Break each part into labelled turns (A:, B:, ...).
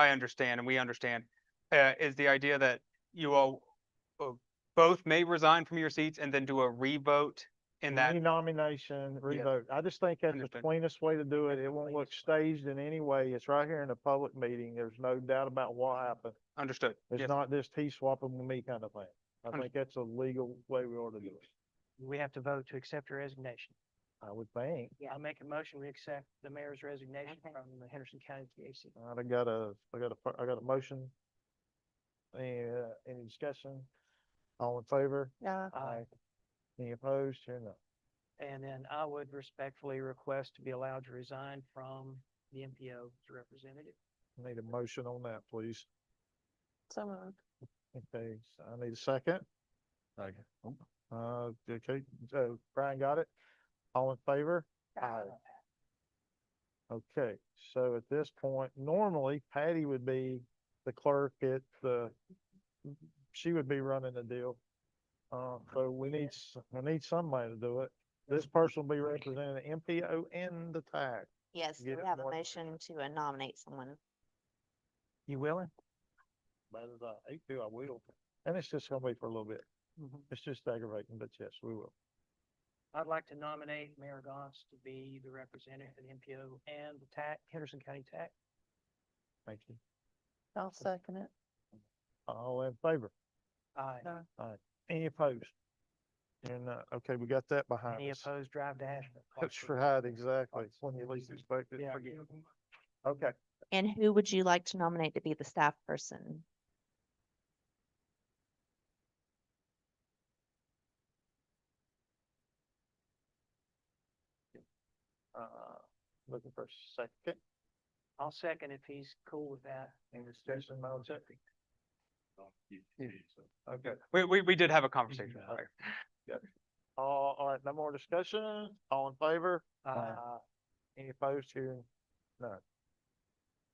A: I understand and we understand, uh, is the idea that you all uh, both may resign from your seats and then do a revote in that.
B: Renomination, revote. I just think that's the
A: Understood.
B: cleanest way to do it. It won't look staged in any way. It's right here in a public meeting. There's no doubt about what happened.
A: Understood. Mm-hmm.
B: It's
A: Yes.
B: Mm-hmm. not this he swapping with me kind of thing. I
A: Understood.
B: think that's a legal way we ought to do it.
C: We have to vote to accept her resignation.
B: I would think.
C: I make a motion, we accept the mayor's resignation
D: Okay.
C: from the Henderson County TAC.
B: All right, I got a, I got a, fir- I got a motion. Any, uh, any discussion? All in favor?
D: Uh,
C: Aye.
B: Any opposed? Here none.
C: And then I would respectfully request to be allowed to resign from the MPO as representative.
B: Need a motion on that, please.
D: so moved.
B: Okay, so I need a second. Second. Uh, okay, so Brian got it. All in favor? Aye. Okay, so at this point, normally Patty would be the clerk at the, she would be running the deal. Uh, so we need, s- we need somebody to do it. This person will be representing the MPO and the tag.
D: Yes,
B: Get
D: we
B: it
D: have a
B: more-
D: motion to uh, nominate someone.
C: You willing?
B: But uh, as I hate to, I will. And it's just gonna be for a little bit. It's just aggravating, but yes, we will.
C: I'd like to nominate Mayor Goss to be the representative of the MPO and the TAC, Henderson County TAC.
B: Thank you.
D: I'll second it.
B: All in favor?
C: Aye.
B: Any opposed? And, uh, okay, we got that behind
C: Any
B: us.
C: opposed, drive to Ashland.
B: That's right, exactly. It's When you least expect it.
C: Yeah.
B: Okay,
D: And who would you like to nominate to be the staff person?
B: uh, looking for a second.
C: I'll second if he's cool with that.
B: Any discussion about it? Okay,
A: We, we, we did have a
B: Mm-hmm.
A: conversation.
B: Yeah.
A: prior.
B: all, all right, no more discussion. All in favor?
C: Uh,
B: Any opposed here? None.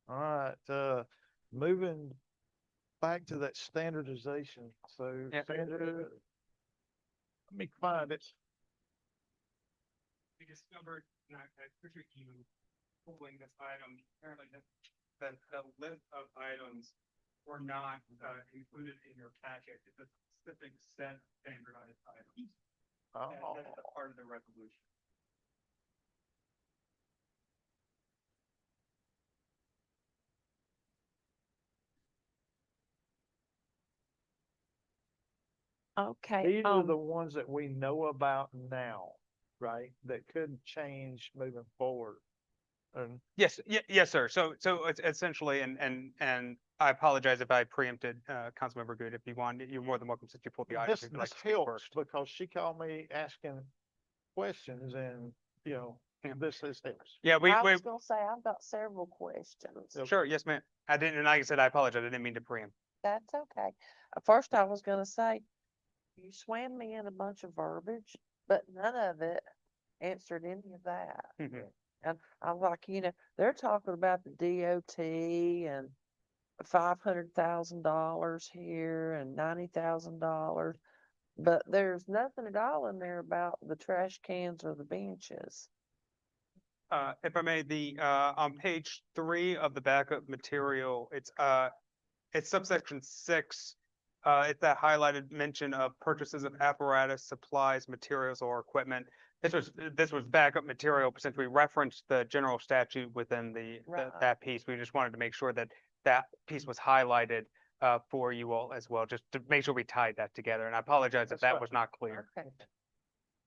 B: All right, uh, moving back to that standardization, so
A: Yeah.
B: standard. Let me find it.
E: we discovered, and I I appreciate you pulling this item, apparently that, that the list of items were not, uh, included in your packet, it's a specific set of standardized items.
B: Oh,
E: And that's a part of the resolution.
D: Okay,
B: These are the ones that we know about now, right? That could change moving forward. And
A: Yes, ye- yes, sir. So, so it's essentially, and, and, and I apologize if I preempted, uh, Councilmember Good. If you want, you're more than welcome since you pulled the item.
B: this,
A: if you'd like
B: this
A: to speak
B: helps
A: first.
B: because she called me asking questions and, you know,
A: Yeah.
B: this is helps.
A: Yeah, we,
D: I
A: we,
D: was gonna say, I've got several questions.
B: Yep.
A: sure, yes, ma'am. I didn't, and like I said, I apologize. I didn't mean to preempt.
D: That's okay. Uh, First, I was gonna say, you swam me in a bunch of verbiage, but none of it answered any of that.
A: Mhm.
D: And I'm like, you know, they're talking about the DOT and five hundred thousand dollars here and ninety thousand dollars. But there's nothing at all in there about the trash cans or the benches.
A: Uh, if I may, the, uh, on page three of the backup material, it's, uh, it's subsection six. Uh, it's that highlighted mention of purchases of apparatus, supplies, materials, or equipment. This was, this was backup material since we referenced the general statute within the, the-
D: Right.
A: that piece. We just wanted to make sure that that piece was highlighted, uh, for you all as well, just to make sure we tied that together. And I apologize if
B: That's
A: that
B: fine.
A: was not clear.
D: Okay.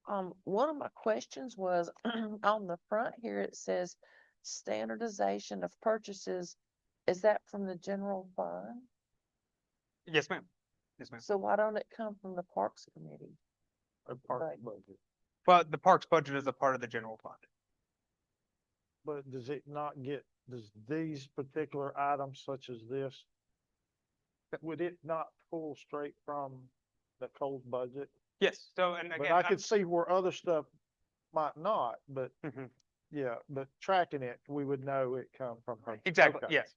D: Um, one of my questions was, on the front here, it says standardization of purchases. Is that from the general fund?
A: Yes, ma'am. Yes, ma'am.
D: So why don't it come from the Parks Committee?
B: a part of
D: Right.
B: the budget.
A: But the parks budget is a part of the general fund.
B: But does it not get, does these particular items such as this, that would it not pull straight from the Coles budget?
A: Yes, so, and
B: But
A: again, uh,
B: I
A: I'm-
B: could see where other stuff might not, but
A: Mhm.
B: yeah, but tracking it, we would know it come from her.
A: exactly,
B: Okay.
A: yes.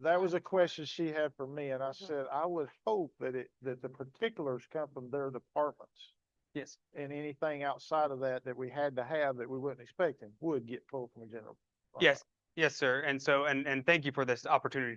B: That was a question she had for me and I said, I would hope that it, that the particulars come from their departments.
A: Yes.
B: And anything outside of that that we had to have that we wasn't expecting would get pulled from the general. fund.
A: Yes, Yes, sir. And so, and, and thank you for this opportunity to